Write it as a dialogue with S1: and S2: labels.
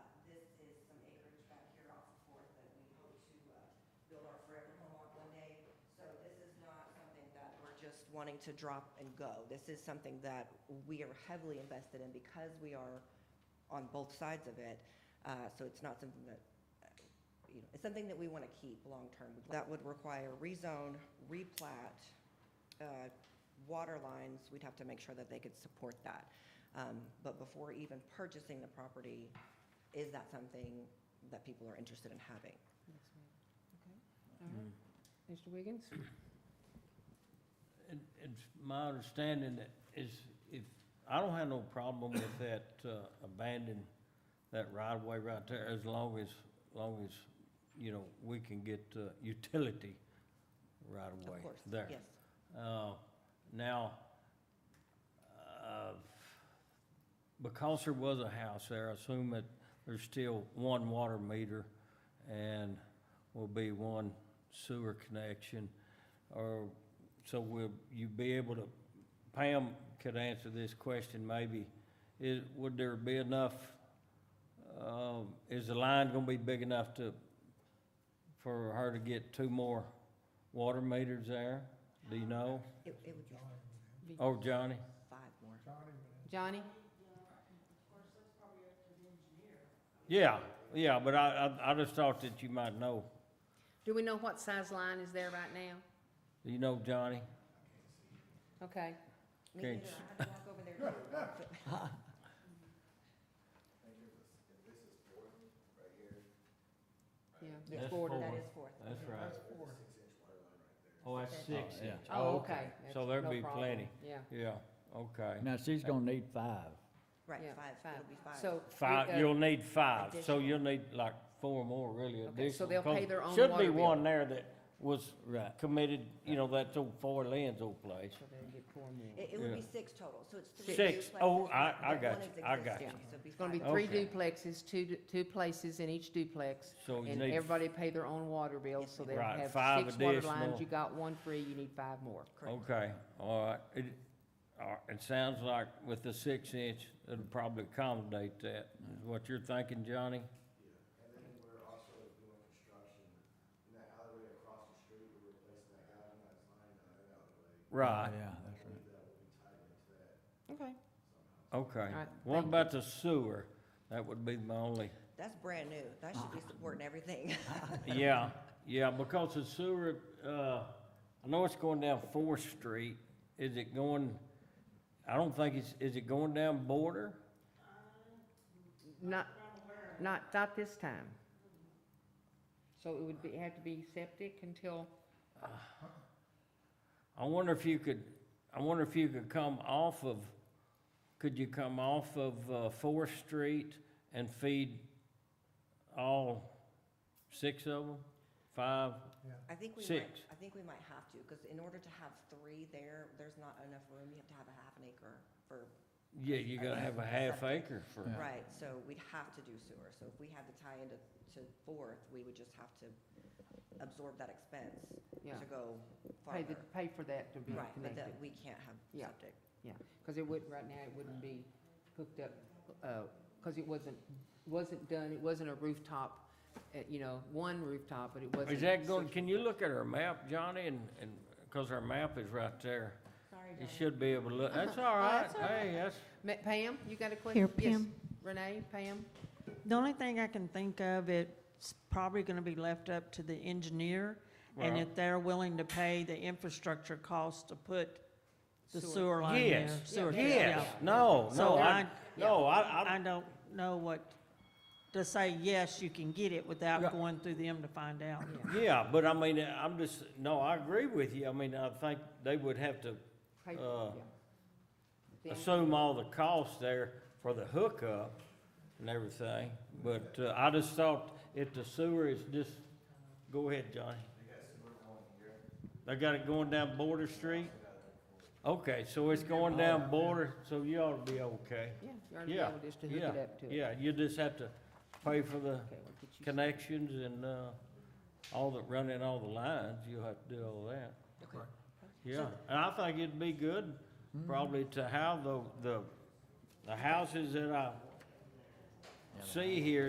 S1: uh, wanting to drop and go. This is something that we are heavily invested in because we are on both sides of it. Uh, So it's not something that, uh, you know, it's something that we want to keep long-term. That would require rezone, replat, uh, water lines, we'd have to make sure that they could support that. Um, But before even purchasing the property, is that something that people are interested in having?
S2: Next meeting, okay? All right.
S3: Mm-hmm.
S2: Mr. Wiggins?
S3: It- It's my understanding that is, if, I don't have no problem with that uh, abandon, that right-of-way right there, as long as, long as, you know, we can get uh, utility right-of-way
S1: Of course,
S3: there.
S1: yes.
S3: Uh, Now, uh, because there was a house there, I assume that there's still one water meter and will be one sewer connection, or, so will you be able to, Pam could answer this question maybe, is, would there be enough, um, is the line gonna be big enough to, for her to get two more water meters there? Do you know?
S1: It it would be
S3: Oh, Johnny?
S1: five more.
S2: Johnny?
S3: Yeah, yeah, but I, I, I just thought that you might know.
S2: Do we know what size line is there right now?
S3: Do you know Johnny?
S2: Okay.
S1: Me
S3: Okay.
S1: neither. I had to walk over there to-
S2: Yeah.
S3: That's
S2: It's bordered.
S1: That
S3: four.
S1: is fourth.
S3: That's right. Oh, that's six
S4: yeah.
S3: inch.
S2: Oh, okay. That's
S3: So there'd
S2: no
S3: be
S2: problem.
S3: plenty.
S2: Yeah.
S3: Yeah, okay.
S4: Now, she's gonna need five.
S2: yeah,
S1: Right, five, it'll be five.
S2: So. we uh, go-
S3: Five, you'll need five, so
S1: Additional.
S3: you'll need like four more really additional.
S2: Okay, so they'll pay
S3: 'cause
S2: their own
S3: Should be
S2: water bill.
S3: one there that was
S4: Right.
S3: committed, you know, that's old Four Lands old place.
S2: So they'll get four more.
S1: It it would be
S3: Yeah.
S1: six total, so it's three.
S3: Six.
S1: duplexes,
S3: Oh, I- I
S1: but
S3: got
S1: one
S3: you.
S1: is
S3: I got
S1: existing,
S2: you.
S1: So it'd be
S2: It's gonna be
S1: five.
S2: three
S3: Okay.
S2: duplexes, two, two places in each duplex.
S3: So you
S2: And
S3: need-
S2: everybody pay their own water bill, so they'll
S3: Right,
S2: have
S3: five
S2: six water lines.
S3: additional.
S2: You got one free, you need five more.
S1: Correct.
S3: Okay, all right. It, all right, it sounds like with the six inch, it'll probably accommodate that, is what you're thinking, Johnny?
S5: And then we're also doing construction in that alleyway across the street, we're replacing that galvanized line on that alleyway.
S3: Right,
S4: Yeah, that's right.
S5: That will be tied into that.
S2: Okay. All
S3: okay.
S2: right,
S3: What
S2: thank
S3: about the sewer? That would be my only,
S1: That's brand new. That should be supporting everything.
S3: yeah, yeah, because the sewer, uh, I know it's going down Fourth Street. Is it going, I don't think it's, is it going down Border?
S2: Not, not, not this time. So it would be, have to be septic until,
S3: I wonder if you could, I wonder if you could come off of, could you come off of uh, Fourth Street and feed all six of them? Five?
S1: I think we might,
S3: Six.
S1: I think we might have to, because in order to have three there, there's not enough room. You have to have a half an acre for,
S3: Yeah, you gotta have a half acre for,
S1: right, so we'd have to do sewer. So if we had to tie into, to fourth, we would just have to absorb that expense
S2: Yeah.
S1: to go
S2: pay the,
S1: farther.
S2: pay for that to be
S1: Right, but
S2: connected.
S1: that, we can't have
S2: Yeah.
S1: septic.
S2: Yeah, because it would, right now, it wouldn't be hooked up, because it wasn't, wasn't done, it wasn't a rooftop, uh, you know, one rooftop, but it wasn't.
S3: is that going, can you look at our map, Johnny, and, and, because our map is right there.
S1: Sorry,
S3: You should be able to look, that's all right,
S2: Oh, That's all
S3: hey, that's,
S2: Ma- Pam, you got a question?
S6: Here,
S2: Yes,
S6: Pam.
S2: Renee, Pam?
S6: The only thing I can think of, it's probably gonna be left up to the engineer, and
S3: Well-
S6: if they're willing to pay the infrastructure cost to put the
S2: Sewer.
S6: sewer line there.
S3: yes,
S6: sewer-
S3: yes,
S6: yeah.
S3: no, no,
S6: So
S3: I,
S6: I-
S3: no, I, I,
S6: I don't know what, to say, yes, you can get it without
S3: Yeah.
S6: going through them to find out.
S3: Yeah, but I mean, I'm just, no, I agree with you. I mean, I think they would have to
S2: Pay-
S3: Uh,
S2: yeah. Then-
S3: assume all the costs there for the hookup and everything. But uh, I just thought if the sewer is just, go ahead, Johnny. They got it going down Border Street? Okay, so it's going down Border, so you ought to be okay.
S2: Yeah, you ought to be
S3: Yeah,
S2: able just to hook
S3: yeah,
S2: it up to it.
S3: Yeah, you just have to pay for the
S2: Okay, we'll get you-
S3: connections and, uh, all the, running all the lines, you'll have to do all that.
S1: Okay.
S3: Yeah, and I think it'd be good probably to have the, the, the houses that I see here